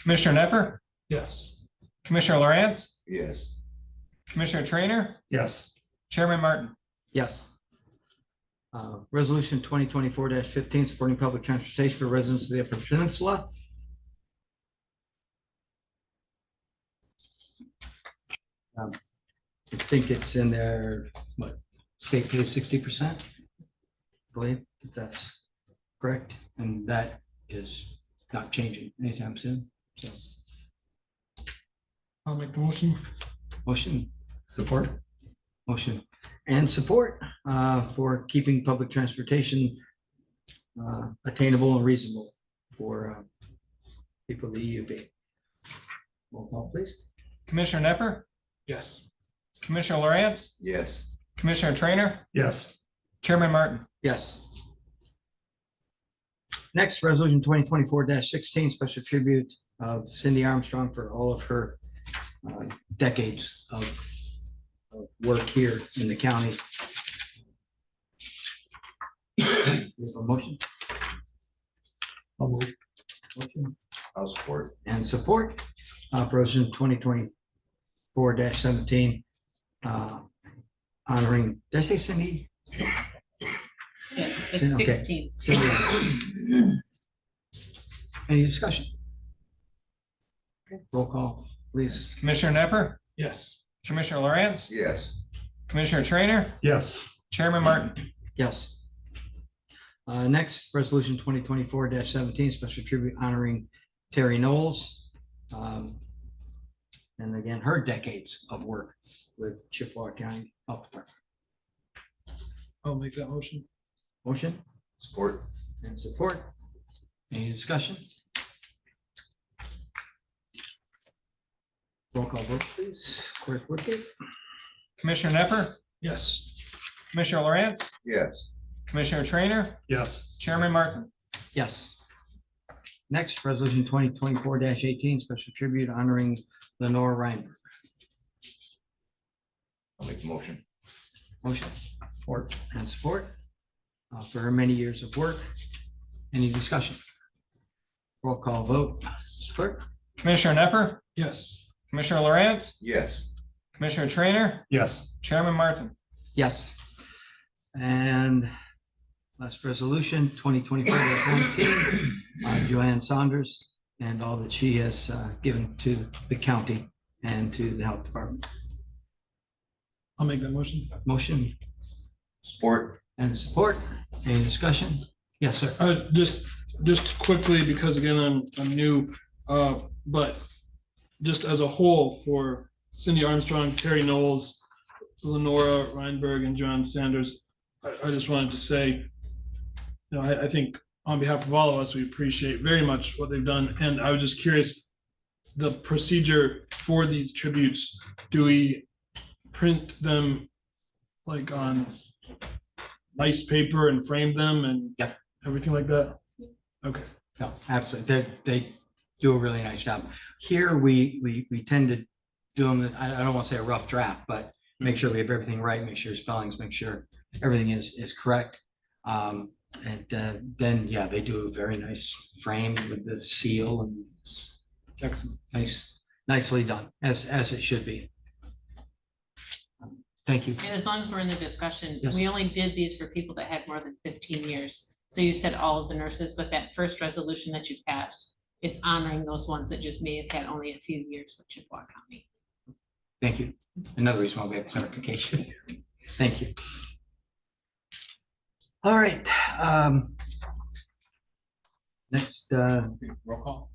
Commissioner Nepper, Yes. Commissioner Lawrence, Yes. Commissioner Trainer, Yes. Chairman Martin. Yes. Uh, Resolution twenty twenty-four fifteen, supporting public transportation for residents of the Upper Peninsula. Um, I think it's in there, what, state pays sixty percent? Believe if that's correct, and that is not changing anytime soon. So, I'll make the motion. motion, Support. motion and support uh, for keeping public transportation uh, attainable and reasonable for uh, people of the EUB. Roll call, please. Commissioner Nepper, Yes. Commissioner Lawrence, Yes. Commissioner Trainer, Yes. Chairman Martin. Yes. Next, Resolution twenty twenty-four sixteen, special tribute of Cindy Armstrong for all of her uh, decades of of work here in the county. We have a motion? I'll move. Motion? I'll support. and support uh, for resolution twenty twenty-four seventeen. uh, Honoring, did I say Cindy? Yeah, Sin- It's okay. sixteen. Cindy. Any discussion? Roll call, please. Commissioner Nepper, Yes. Commissioner Lawrence, Yes. Commissioner Trainer, Yes. Chairman Martin. Yes. Uh, Next, resolution twenty twenty-four seventeen, special tribute honoring Terry Knowles. um, And again, her decades of work with Chippewa County Health Department. I'll make that motion. Motion? Support. and support. Any discussion? Roll call vote, please. Clerk Wickett? Commissioner Nepper, Yes. Commissioner Lawrence, Yes. Commissioner Trainer, Yes. Chairman Martin. Yes. Next, Resolution twenty twenty-four eighteen, special tribute honoring Lenore Reiner. I'll make the motion. Motion Support. and support uh, for her many years of work. Any discussion? Roll call vote, Mr. Clerk? Commissioner Nepper, Yes. Commissioner Lawrence, Yes. Commissioner Trainer, Yes. Chairman Martin. Yes. And last resolution, twenty twenty-four nineteen, Joanne Saunders and all that she has uh, given to the county and to the health department. I'll make that motion. Motion Support. and support. Any discussion? Yes, sir. Uh, just, just quickly, because again, I'm, I'm new, uh, but just as a whole for Cindy Armstrong, Terry Knowles, Lenora Reinberg and John Sanders, I, I just wanted to say, you know, I, I think on behalf of all of us, we appreciate very much what they've done. And I was just curious, the procedure for these tributes, do we print them like on nice paper and frame them and Yep. everything like that? Okay. No, absolutely. They, they do a really nice job. Here, we, we, we tend to do them, I, I don't want to say a rough draft, but make sure we have everything right, make sure spellings, make sure everything is, is correct. Um, and, uh, then, yeah, they do a very nice frame with the seal and it's Excellent. nice, nicely done, as, as it should be. Thank you. And as long as we're in the discussion, Yes. we only did these for people that had more than fifteen years. So you said all of the nurses, but that first resolution that you passed is honoring those ones that just may have had only a few years with Chippewa County. Thank you. Another reason why we have clarification. Thank you. All right. um, Next, uh, roll call.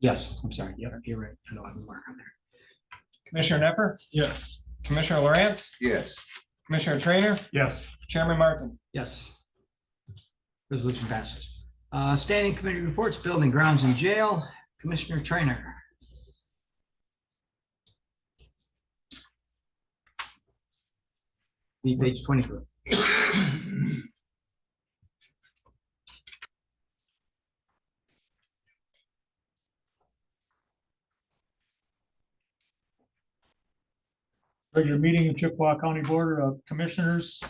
Yes, I'm sorry. Yeah, you're right. I know I have a mark on there. Commissioner Nepper, Yes. Commissioner Lawrence, Yes. Commissioner Trainer, Yes. Chairman Martin. Yes. Resolution passes. Uh, Standing committee reports, building grounds and jail, Commissioner Trainer. Be Page 24. Regular meeting of Chippewa County Board of Commissioners,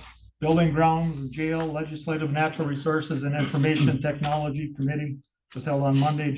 Building Grounds, Jail, Legislative Natural Resources and Information Technology Committee was held on Monday,